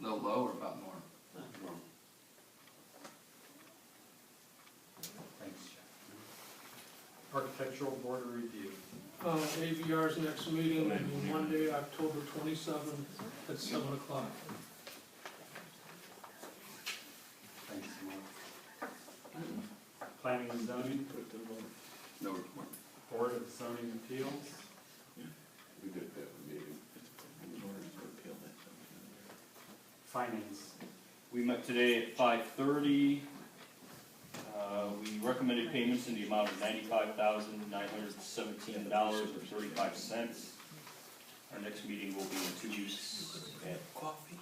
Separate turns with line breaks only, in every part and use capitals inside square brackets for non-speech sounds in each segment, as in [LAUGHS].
little low or about norm?
Thanks, Jeff. Architectural board review.
Uh, ABR's next meeting will be Monday, October twenty-seventh, at seven o'clock.
Thanks, Mark. Planning and zoning, put the
No report.
board of zoning appeals.
We did that meeting.
Finance,
We met today at five thirty. Uh, we recommended payments in the amount of ninety-five thousand, nine hundred and seventeen dollars and thirty-five cents. Our next meeting will be in two weeks at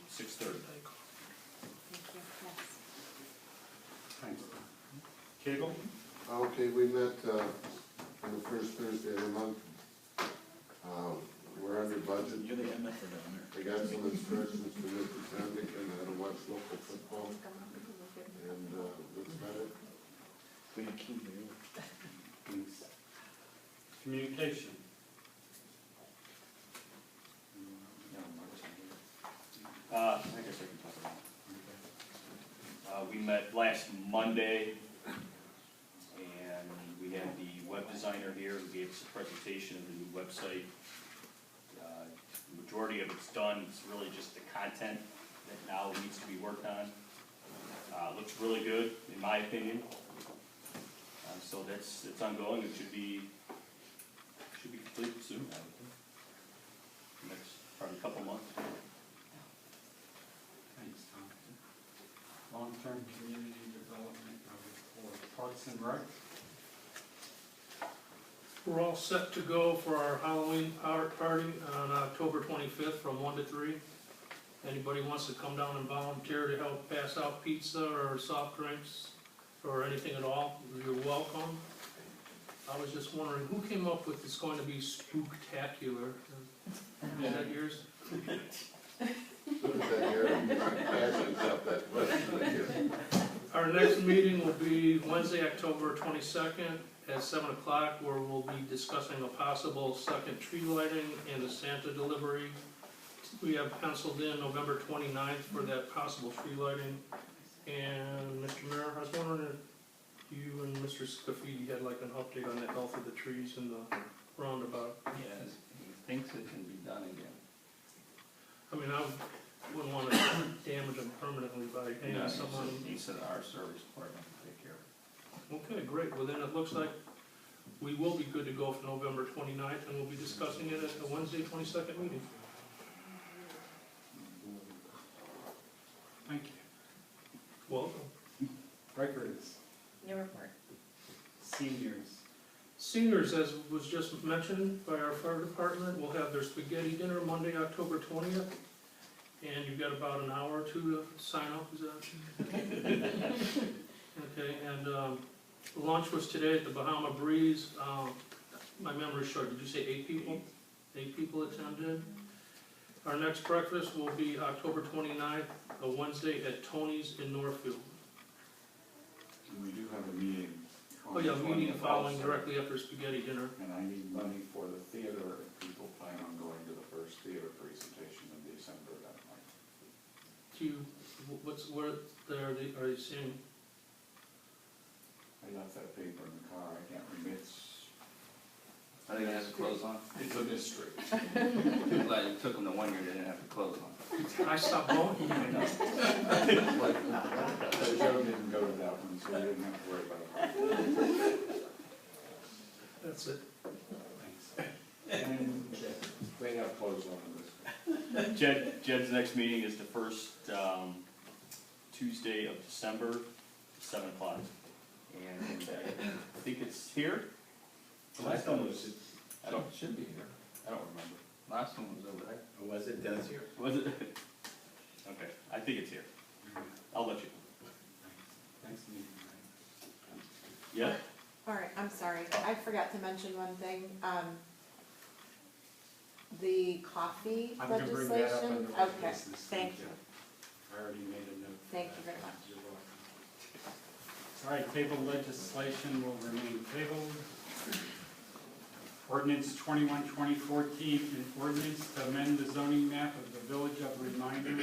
six thirty.
thanks. Cable,
Okay, we met, uh, on the first Thursday of the month. Um, we're under budget. I got some instructions from Mr. Sandvik and how to watch local football, and, uh, looks better.
thanks. Communication.
Uh, I guess I can talk about it. Uh, we met last Monday, and we had the web designer here who gave us a presentation of the new website. Uh, the Majority of it's done, it's really just the content that now needs to be worked on. Uh, looks really good, in my opinion. Uh, so that's, it's ongoing, it should be, should be complete soon, I would think. Next, probably a couple months.
Thanks, Tom. Long-term community development for Parks and Rec.
We're all set to go for our Halloween art party on October twenty-fifth from one to three. Anybody wants to come down and volunteer to help pass out pizza or soft drinks or anything at all, you're welcome. I was just wondering, who came up with it's going to be spooktacular? Is that yours?
Look at that hair, asking about that question again.
Our next meeting will be Wednesday, October twenty-second at seven o'clock, where we'll be discussing a possible second tree lighting and a Santa delivery. We have penciled in November 29th for that possible tree lighting. And Mr. Mayor, I was wondering if you and Mr. Scafidi had like an update on the health of the trees in the roundabout.
Yes, he thinks it can be done again.
I mean, I wouldn't wanna damage them permanently by
No,
hanging
he said-
someone.
He said our service department can take care of it.
Okay, great, well then it looks like we will be good to go for November 29th, and we'll be discussing it at the Wednesday twenty-second meeting.
Thank you.
Welcome.
Records,
New report.
seniors.
Seniors, as was just mentioned by our fire department, will have their spaghetti dinner Monday, October twentieth. And you've got about an hour or two to sign up, is that? Okay, and, um, lunch was today at the Bahama Breeze, um, my memory's short, did you say eight people? Eight people attended. Our next breakfast will be October 29th, a Wednesday at Tony's in Northfield.
And we do have a meeting. on
Oh yeah,
the
meeting
20th
following
also,
directly after spaghetti dinner.
And I need money for the theater, if people plan on going to the first theater presentation in December that night.
Do you, wh- what's, where, are they, are you seeing?
I left that paper in the car, I can't remember, it's,
Are they gonna have to close on?
it's a mystery. [LAUGHS]
I'm glad it took them the one year they didn't have to close on.
I stopped going.
So Joe didn't go to that one, so we didn't have to worry about it.
That's it.
And They have clothes on in this.
Jed, Jed's next meeting is the first, um, Tuesday of December, seven o'clock. And uh, I think it's here? The last one was, I don't,
It should be here.
I don't remember.
Last one was over there.
Was it done here?
Was it? [LAUGHS] Okay, I think it's here. I'll let you.
Next meeting,
Yeah?
All right, I'm sorry, I forgot to mention one thing, um, the coffee
right? I'm gonna bring that up
legislation.
under old
Okay,
business.
thank you.
I already made a note. for
Thank
that.
you very much.
You're welcome. All right, table legislation will remain tabled. Ordinance 21-2014, an ordinance to amend the zoning map of the Village of Reminder